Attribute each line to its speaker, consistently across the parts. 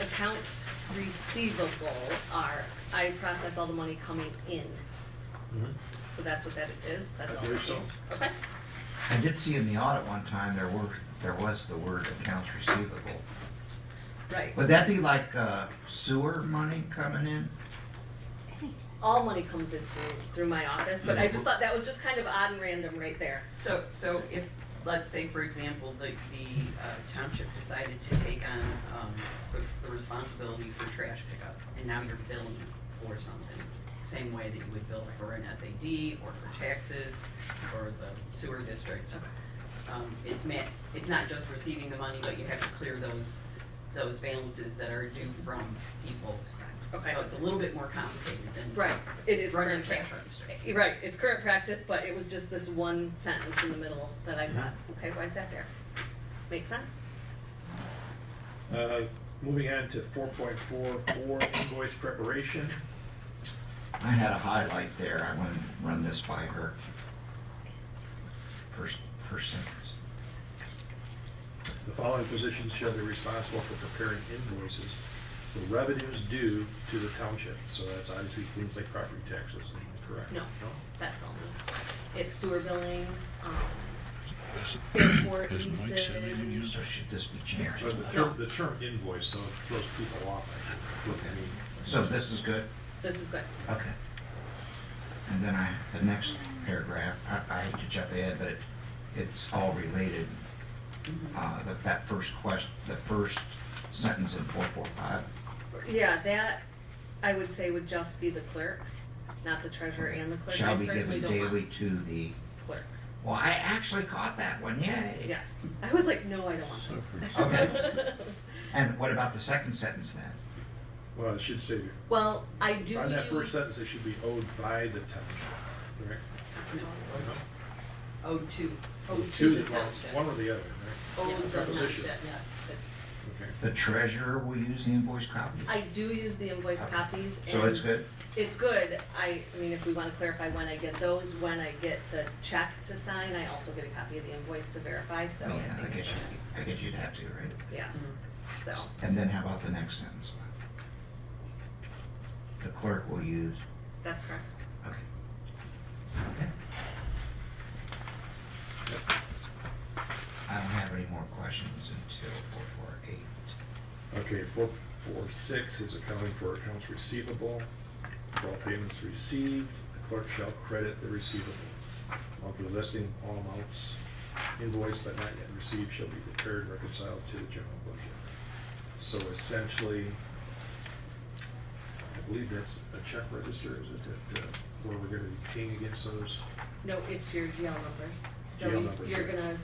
Speaker 1: accounts receivable are, I process all the money coming in. So that's what that is, that's
Speaker 2: I
Speaker 1: all. it
Speaker 2: believe so.
Speaker 1: means. Okay,
Speaker 3: I did see in the audit one time, there were, there was the word accounts receivable.
Speaker 1: right.
Speaker 3: Would that be like uh, sewer money coming in?
Speaker 1: All money comes in through, through my office, but I just thought that was just kind of odd and random right there.
Speaker 4: So, so if, let's say, for example, the, the uh, township decided to take on, um, the- the responsibility for trash pickup, and now you're billing for something, same way that you would bill for an SAD, or for taxes, or the sewer district. Um, it's ma, it's not just receiving the money, but you have to clear those, those balances that are due from people.
Speaker 1: Okay.
Speaker 4: So it's a little bit more complicated than.
Speaker 1: Right, it is
Speaker 4: Running a
Speaker 1: current
Speaker 4: cash
Speaker 1: practice.
Speaker 4: register.
Speaker 1: You're Right, it's current practice, but it was just this one sentence in the middle that I thought, okay, why is that there? Makes sense?
Speaker 2: Uh, Moving on to four point four four invoice preparation.
Speaker 3: I had a highlight there, I want to run this by her. Per, per sentence.
Speaker 2: The following positions shall be responsible for preparing invoices for revenues due to the township. So that's obviously things like property taxes, am I correct?
Speaker 1: No, that's all me. It's sewer billing, um, airport
Speaker 5: Does Mike
Speaker 1: leases.
Speaker 5: say we didn't use
Speaker 3: So should this be generic?
Speaker 2: But the term, the term invoice, so it throws people off, I think. I mean,
Speaker 3: So this is good?
Speaker 1: This is good.
Speaker 3: Okay. And then I, the next paragraph, I, I hate to jump ahead, but it, it's all related. Uh, that, that first question, the first sentence in four four five.
Speaker 1: Yeah, that, I would say would just be the clerk, not the treasurer and the clerk.
Speaker 3: Shall
Speaker 1: I
Speaker 3: be
Speaker 1: certainly
Speaker 3: given
Speaker 1: don't want
Speaker 3: daily to the,
Speaker 1: Clerk,
Speaker 3: well, I actually caught that one, yay.
Speaker 1: yes. I was like, no, I don't want
Speaker 3: Okay.
Speaker 1: this.
Speaker 3: And what about the second sentence then?
Speaker 2: Well, it should say,
Speaker 1: Well, I do
Speaker 2: on that first
Speaker 1: use,
Speaker 2: sentence, it should be owed by the township, correct?
Speaker 4: No,
Speaker 2: No.
Speaker 4: Oh, two.
Speaker 1: oh, to the
Speaker 2: the- well,
Speaker 1: township.
Speaker 2: One or the other, right?
Speaker 1: Oh, the
Speaker 2: Proposition.
Speaker 1: township, yes.
Speaker 2: Okay.
Speaker 3: The treasurer will use the invoice copy?
Speaker 1: I do use the invoice
Speaker 3: Okay.
Speaker 1: copies and.
Speaker 3: So it's good?
Speaker 1: It's good. I, I mean, if we wanna clarify when I get those, when I get the check to sign, I also get a copy of the invoice to verify, so.
Speaker 3: Oh, Yeah, I
Speaker 1: think
Speaker 3: guess
Speaker 1: it's-
Speaker 3: you, I guess you'd have to, right?
Speaker 1: Yeah,
Speaker 4: Mhm.
Speaker 1: so,
Speaker 3: And then how about the next sentence? The clerk will use,
Speaker 1: that's correct.
Speaker 3: okay. Okay. I don't have any more questions until four four eight.
Speaker 2: Okay, four, four, six is accounting for accounts receivable. For all payments received, the clerk shall credit the receivable. Monthly listing, all amounts invoiced but not yet received shall be prepared, and reconciled to the general budget. So essentially, I believe that's a check register, is it, that, uh, where we're gonna be paying against those?
Speaker 1: No, it's your GL numbers. So
Speaker 2: GL
Speaker 1: you-
Speaker 2: numbers,
Speaker 1: you're
Speaker 2: right.
Speaker 1: gonna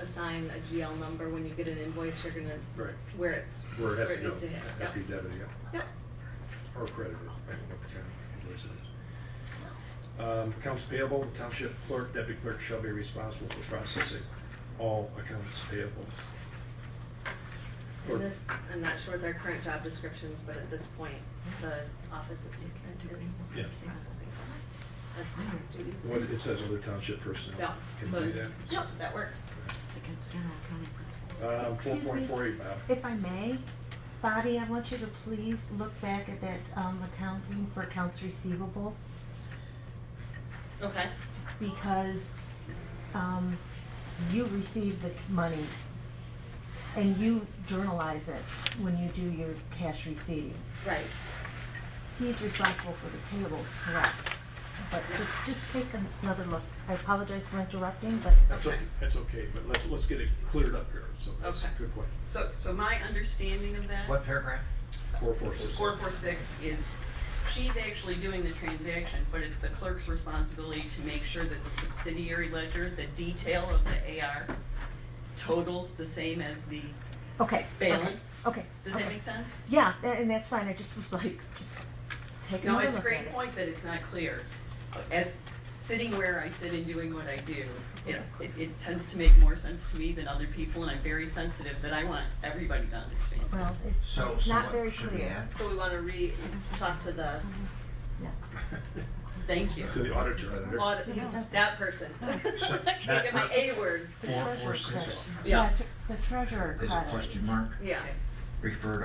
Speaker 1: assign a GL number when you get an invoice, you're gonna,
Speaker 2: Right,
Speaker 1: where it's.
Speaker 2: where it has to go,
Speaker 1: needs hit.
Speaker 2: has to be
Speaker 1: Yep.
Speaker 2: debited, yeah.
Speaker 1: Yep.
Speaker 2: or credited, I don't know what the kind of invoice it is. Um, Accounts payable, the township clerk, deputy clerk shall be responsible for processing all accounts payable. Or-
Speaker 1: And this, I'm not sure with our current job descriptions, but at this point, the office assistant is
Speaker 2: Yeah.
Speaker 1: processing for my, that's my duties.
Speaker 2: What it says other township personnel.
Speaker 1: Yeah.
Speaker 2: Can you do that?
Speaker 1: Yep, that works.
Speaker 6: Against general accounting principles.
Speaker 2: Um, four
Speaker 7: Excuse
Speaker 2: point
Speaker 7: me.
Speaker 2: four eight, Bob.
Speaker 7: If I may, Bobby, I want you to please look back at that um, accounting for accounts receivable
Speaker 1: Okay.
Speaker 7: because um, you receive the money and you journalize it when you do your cash receiving.
Speaker 1: Right.
Speaker 7: He's responsible for the payables, correct? But just, just take another look. I apologize for interrupting, but
Speaker 2: That's o-
Speaker 1: Okay.
Speaker 2: That's okay, but let's, let's get it cleared up here, so that's a
Speaker 1: Okay.
Speaker 2: good point.
Speaker 4: So, so my understanding of that.
Speaker 3: What paragraph?
Speaker 2: Four four six.
Speaker 4: Four four six is, she's actually doing the transaction, but it's the clerk's responsibility to make sure that the subsidiary ledger, the detail of the AR totals the same as the
Speaker 7: okay.
Speaker 4: balance.
Speaker 7: Okay.
Speaker 4: Does
Speaker 7: okay.
Speaker 4: that make sense?
Speaker 7: Yeah, tha- and that's fine. I just was like, just take
Speaker 4: No, it's
Speaker 7: another look at it.
Speaker 4: a great point that it's not clear. As, sitting where I sit and doing what I do, you know, it, it tends to make more sense to me than other people, and I'm very sensitive that I want everybody to understand.
Speaker 7: Well, it's
Speaker 3: So,
Speaker 7: it's
Speaker 3: so
Speaker 7: not very
Speaker 3: what should we
Speaker 7: clear.
Speaker 3: add?
Speaker 1: So we wanna re, talk to the
Speaker 4: Thank you.
Speaker 2: To the auditor. editor.
Speaker 1: audit,
Speaker 7: Yeah, that's-
Speaker 1: that person. I
Speaker 3: So
Speaker 1: can't
Speaker 3: that
Speaker 1: get my
Speaker 3: per-
Speaker 1: A word.
Speaker 7: The
Speaker 3: Four,
Speaker 7: treasurer
Speaker 3: four, six.
Speaker 7: credit.
Speaker 1: Yeah.
Speaker 7: tr- The treasurer
Speaker 3: Is
Speaker 7: credit.
Speaker 3: it question mark?
Speaker 1: Yeah.
Speaker 3: Refer to